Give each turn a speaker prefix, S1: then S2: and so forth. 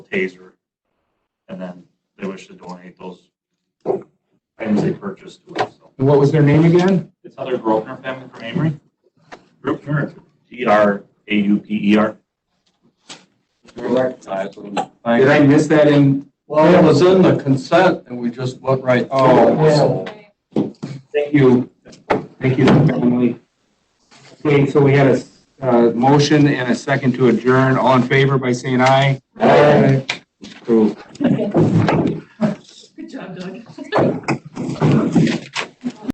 S1: taser. And then they wish to donate those items they purchased to us. So
S2: And what was their name again?
S1: It's Heather Grosvenor family from Amory. Grosvenor, G R A U P E R.
S2: Did I miss that in?
S3: Well, it was in the consent and we just went right through it.
S2: Oh, thank you. Thank you, Emily. Okay, so we had a, uh, motion and a second to adjourn. All in favor by saying aye? Aye. Approved.
S4: Good job, Doug.